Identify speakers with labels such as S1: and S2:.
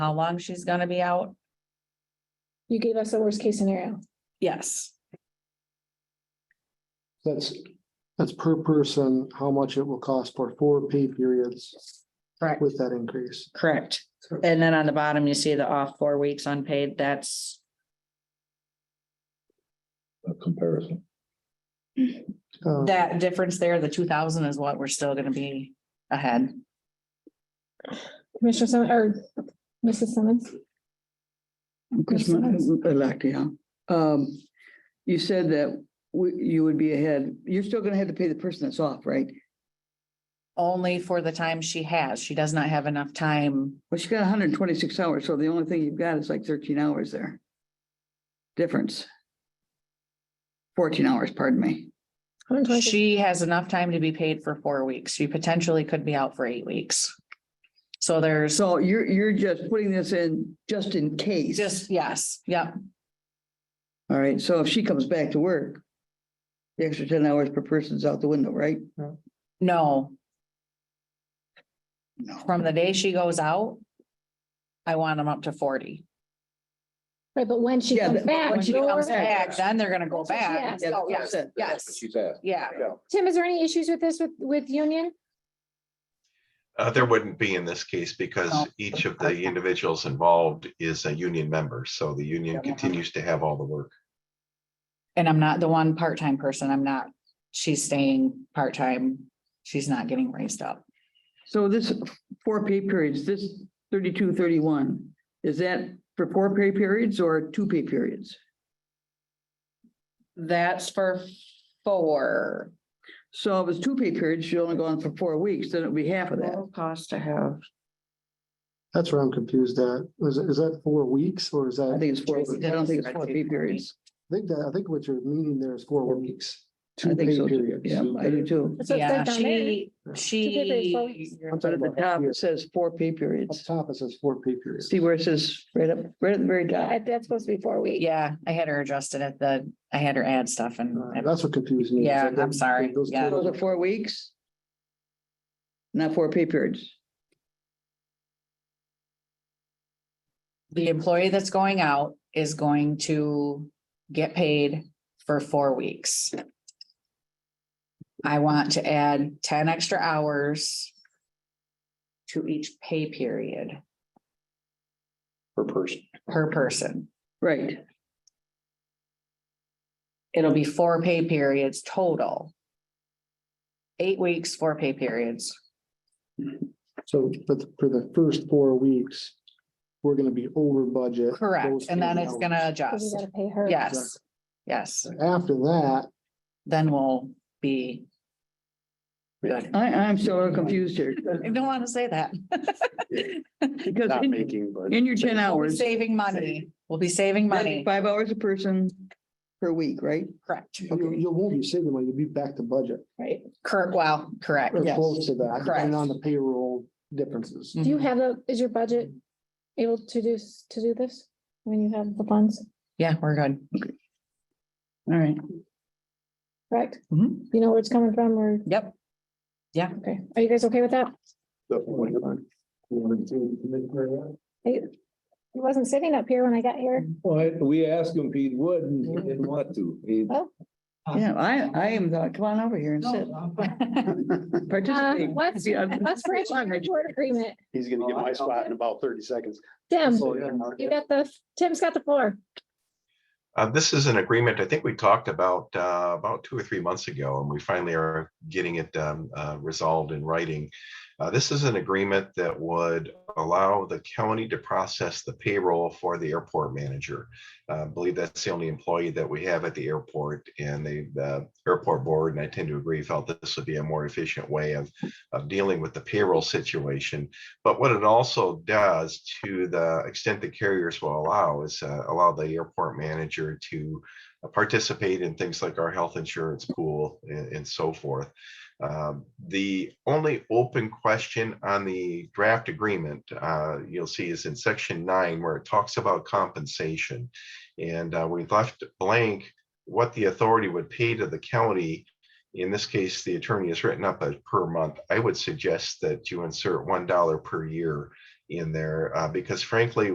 S1: how long she's gonna be out.
S2: You gave us the worst case scenario.
S1: Yes.
S3: That's, that's per person, how much it will cost for four pay periods
S1: Correct.
S3: with that increase.
S1: Correct. And then on the bottom, you see the off four weeks unpaid, that's
S4: a comparison.
S3: Uh,
S1: that difference there, the two thousand is what we're still gonna be ahead.
S2: Commissioner Simmons or Mrs. Simmons?
S5: Commissioner
S2: Simmons.
S5: elect, yeah. Um, you said that we, you would be ahead. You're still gonna have to pay the person that's off, right?
S1: Only for the time she has. She does not have enough time.
S5: Well, she got hundred and twenty-six hours, so the only thing you've got is like thirteen hours there. Difference. Fourteen hours, pardon me.
S1: She has enough time to be paid for four weeks. She potentially could be out for eight weeks. So there's
S5: So you're, you're just putting this in just in case.
S1: just, yes, yep,
S5: All right, so if she comes back to work, the extra ten hours per person's out the window, right?
S1: no,
S5: No.
S1: from the day she goes out. I want them up to forty.
S2: Right, but when she
S5: Yeah,
S2: comes
S5: but
S2: back.
S1: When she
S2: you're
S1: comes
S2: right.
S1: back, then they're gonna go back.
S2: That's what she
S1: Oh, yes,
S5: asked.
S1: yes,
S4: She's asked.
S1: yeah.
S2: Tim, is there any issues with this with, with union?
S6: Uh, there wouldn't be in this case
S1: No.
S6: because each of the individuals involved is a union member, so the union
S1: Yeah.
S6: continues to have all the work.
S1: And I'm not the one part-time person. I'm not, she's staying part-time. She's not getting raised up.
S5: So this four pay periods, this thirty-two, thirty-one, is that for four pay periods or two pay periods?
S1: That's for four.
S5: So if it's two pay periods, she only go on for four weeks, then it'd be half of that.
S1: Cost to have.
S3: That's where I'm confused at. Is, is that four weeks or is that,
S5: I think it's four,
S1: Tracy
S5: I don't think
S1: did
S5: it's four
S1: two
S5: pay periods.
S3: I think that, I think what you're meaning there is four weeks.
S5: I
S3: Two
S5: think
S3: pay
S5: so, too.
S3: periods.
S5: yeah, I do too.
S2: That's what it
S1: Yeah,
S2: says down there.
S1: she, she,
S2: four weeks.
S3: I'm
S5: But
S3: talking
S5: at the
S3: about up
S5: top,
S3: here.
S5: it says four pay
S3: Up
S5: periods.
S3: top, it says four pay periods.
S5: See where it says right up, right at the very
S2: Uh,
S5: top.
S2: That's supposed to be four weeks.
S1: yeah, I had her adjusted at the, I had her add stuff
S3: Uh,
S1: and
S3: That's what confused me. is
S1: Yeah,
S3: that those-
S1: I'm sorry.
S3: those
S1: Yeah.
S5: Those are
S3: totals-
S5: four weeks. Not four pay periods.
S1: the employee that's going out is going to get paid for four weeks. I want to add ten extra hours to each pay period
S4: Per person.
S1: per person.
S5: Right,
S1: It'll be four pay periods total. Eight weeks, four pay periods.
S3: So, but for the first four weeks, we're gonna be over budget.
S1: Correct,
S3: those
S1: and then
S3: three
S1: it's gonna
S2: Because you
S1: adjust.
S2: gotta pay her.
S1: Yes, yes,
S3: hours. After that,
S1: then we'll be good.
S5: I, I'm still confused here,
S1: I don't want to say that.
S5: because in-
S4: but.
S5: in your
S1: We'll
S5: ten
S1: be
S5: hours.
S1: Saving money, we'll be saving
S5: That's
S1: money,
S5: Five hours a person per week, right?
S1: correct,
S3: you, you won't be saving money, you'll be back to budget.
S2: Right.
S1: correct, well, correct,
S3: Or
S5: Yes. Mm.
S3: close to that,
S1: Correct.
S3: depending on the payroll differences.
S2: Do you
S1: Mm-hmm.
S2: have the, is your budget able to do, s- to do this? When you have the funds,
S1: yeah, we're good.
S5: All right.
S2: correct?
S1: Mhm.
S2: You know where it's coming from or,
S1: Yep,
S2: okay. Are you guys okay with that? He wasn't sitting up here when I got here.
S4: Well, we asked him if he would, and he didn't want to. He-
S5: Yeah, I, I am, uh, come on over here and sit. Mm-hmm.
S2: Uh,
S5: Participate.
S2: what's,
S5: Yeah.
S2: what's Rich board agreement?
S7: He's gonna get my spot in about thirty seconds.
S5: Um,
S2: Tim,
S7: So, yeah.
S2: you got the, Tim's got the floor.
S6: Uh, this is an agreement I think we talked about uh, about two or three months ago, and we finally are getting it um, uh, resolved in writing. Uh, this is an agreement that would allow the county to process the payroll for the airport manager. Uh, I believe that's the only employee that we have at the airport, and the, the airport board, and I tend to agree, felt that this would be a more efficient way of of dealing with the payroll situation. But what it also does to the extent that carriers will allow is uh, allow the airport manager to uh, participate in things like our health insurance pool and, and so forth. Um, the only open question on the draft agreement uh, you'll see is in section nine where it talks about compensation. And uh, we left blank what the authority would pay to the county in this case, the attorney has written up a per month. I would suggest that you insert one dollar per year in there, uh, because frankly,